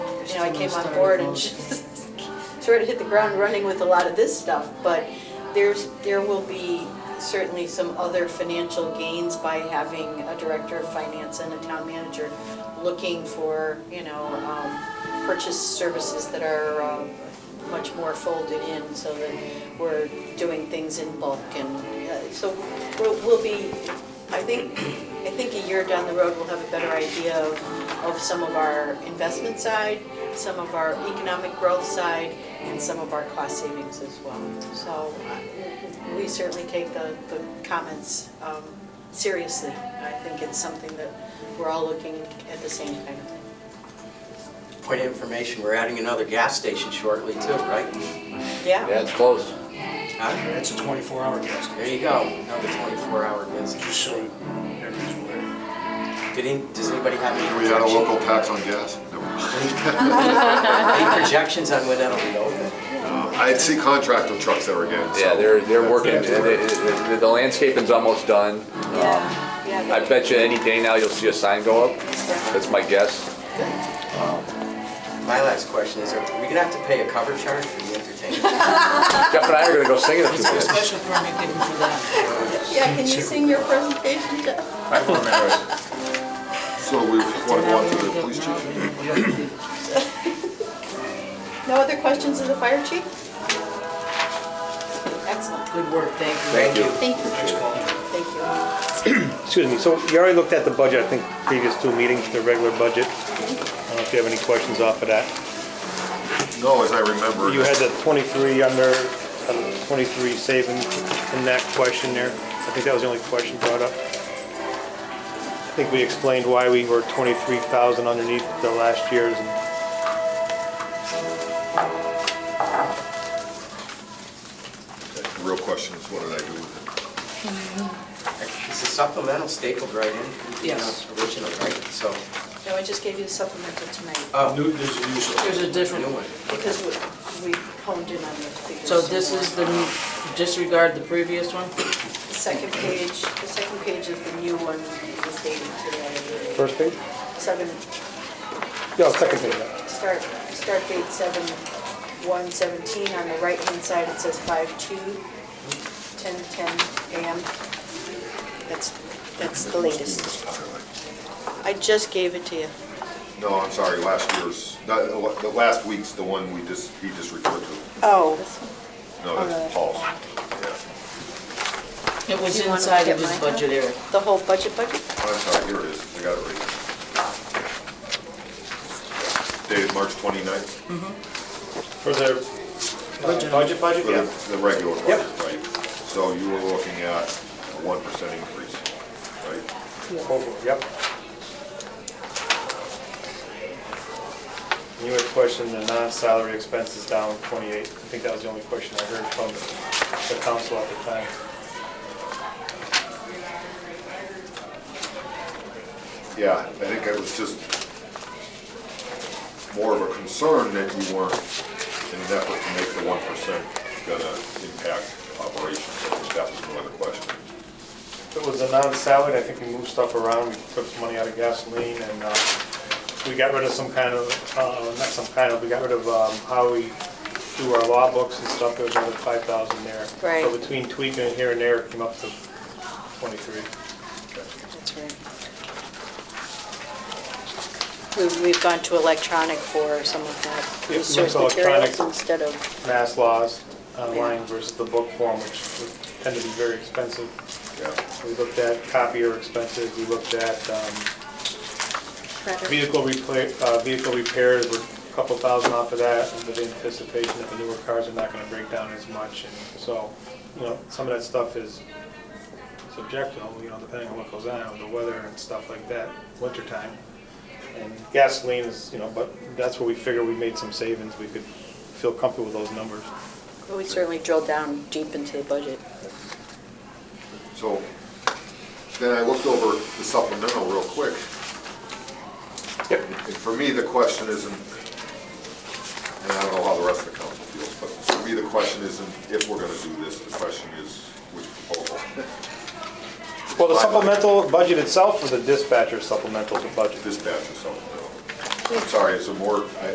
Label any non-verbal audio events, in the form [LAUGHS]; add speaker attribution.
Speaker 1: you know, I came on board and sort of hit the ground running with a lot of this stuff, but there's, there will be certainly some other financial gains by having a director of finance and a town manager looking for, you know, um, purchase services that are um, much more folded in so that we're doing things in bulk and, uh, so we'll, we'll be, I think, I think a year down the road, we'll have a better idea of, of some of our investment side, some of our economic growth side, and some of our cost savings as well. So uh, we certainly take the, the comments um, seriously. I think it's something that we're all looking at the same kind of thing.
Speaker 2: Point of information, we're adding another gas station shortly too, right?
Speaker 1: Yeah,
Speaker 3: it's close.
Speaker 2: Huh?
Speaker 4: That's a 24-hour gas
Speaker 2: There
Speaker 4: station.
Speaker 2: you go, another 24-hour business.
Speaker 4: Just so everyone's aware.
Speaker 2: Did any, does anybody have any
Speaker 5: We had a
Speaker 2: projections?
Speaker 5: local tax on gas. No. [LAUGHS]
Speaker 2: Any projections on when that'll be open?
Speaker 5: I'd see contractor trucks there again, so.
Speaker 3: Yeah, they're, they're working,
Speaker 4: Yeah.
Speaker 3: the- the- the- the landscaping's almost done.
Speaker 1: yeah,
Speaker 3: I
Speaker 1: yeah.
Speaker 3: bet you any day now you'll see a sign go up, that's my guess.
Speaker 2: My last question is, are we gonna have to pay a cover charge for the
Speaker 6: [LAUGHS]
Speaker 2: entertainment?
Speaker 3: Jeff and I are gonna go sing it a few
Speaker 6: A
Speaker 3: minutes.
Speaker 6: special permit given
Speaker 1: [LAUGHS]
Speaker 6: for that.
Speaker 1: Yeah, can you sing your presentation, Jeff?
Speaker 3: I don't remember it.
Speaker 5: So we want to go out to the police chief.
Speaker 1: No other questions of the fire chief? Excellent,
Speaker 6: Good work, thank you.
Speaker 3: Thank you.
Speaker 1: thank you,
Speaker 4: Thanks, Paul.
Speaker 1: thank you.
Speaker 7: Excuse me, so you already looked at the budget, I think, previous two meetings, the regular budget. I don't know if you have any questions off of that.
Speaker 5: No, as I remember.
Speaker 7: You had the 23 under, um, 23 saving in that question there. I think that was the only question brought up. I think we explained why we were 23,000 underneath the last year's. and
Speaker 5: The real question is, what did I do with it?
Speaker 2: It's a supplemental stapled right in. you know,
Speaker 6: Yes.
Speaker 2: Original, right? So,
Speaker 1: No, I just gave you the supplemental tonight
Speaker 2: oh,
Speaker 4: New- There's a new store.
Speaker 6: There's a
Speaker 2: new
Speaker 6: different,
Speaker 2: one.
Speaker 1: because we- we honed in on the figures.
Speaker 6: so this is the, new- disregard the previous one?
Speaker 1: The second page, the second page of the new one was dated today.
Speaker 7: First page?
Speaker 1: Seven,
Speaker 7: No, second page.
Speaker 1: start, start date seven, one seventeen, on the right-hand side, it says five two, ten, ten AM. That's, that's the latest. I just gave it to you.
Speaker 5: No, I'm sorry, last year's, not, the last week's the one we just, he just referred to.
Speaker 1: Oh.
Speaker 5: No, that's
Speaker 7: Oh,
Speaker 5: Paul's. Yeah.
Speaker 6: It was
Speaker 1: You wanna
Speaker 6: inside
Speaker 1: get
Speaker 6: of his
Speaker 1: mine?
Speaker 6: budget area.
Speaker 1: The whole budget budget?
Speaker 5: I'm sorry, here it is, I got it right. here. Dated March 29th,
Speaker 7: For the uh, budget, budget,
Speaker 5: for
Speaker 7: yeah.
Speaker 5: the- the regular
Speaker 7: Yep.
Speaker 5: budget, right? So you were looking at a 1% increase, right?
Speaker 7: Over, Yep. You had questioned the non-salary expenses down 28. I think that was the only question I heard from the council at the time.
Speaker 5: Yeah, I think it was just more of a concern that you weren't in an effort to make the one percent gonna impact operations. I think that was one of the questions.
Speaker 7: If It was a non-salary, I think we moved stuff around, we took some money out of gasoline, and uh, we got rid of some kind of, uh, not some kind of, we got rid of um, how we do our law books and stuff, there was another 5,000 there.
Speaker 1: Right.
Speaker 7: So between tweaking it here and there, it came up to 23.
Speaker 1: That's right. We've, we've gone to electronic for some of that
Speaker 7: Yep,
Speaker 1: resource
Speaker 7: that's electronic.
Speaker 1: materials instead of,
Speaker 7: mass laws online versus the book form, which would tend to be very expensive.
Speaker 5: Yeah,
Speaker 7: We looked at copier expenses, we looked at um, vehicle repla- uh, vehicle repairs, we're a couple thousand off of that with anticipation that the newer cars are not going to break down as much. And so, you know, some of that stuff is subjective, you know, depending on what goes on, the weather and stuff like that, wintertime. And gasoline is, you know, but that's where we figure we made some savings. We could feel comfortable with those numbers.
Speaker 1: we certainly drilled down deep into the budget.
Speaker 5: so then I looked over the supplemental real quick. And for me, the question isn't, and I don't know how the rest of the council feels, but for me, the question isn't if we're gonna do this, the question is which proposal.
Speaker 7: Well, the supplemental budget itself or the dispatcher supplemental budget?
Speaker 5: Dispatch or supplemental. I'm sorry, it's a more, I,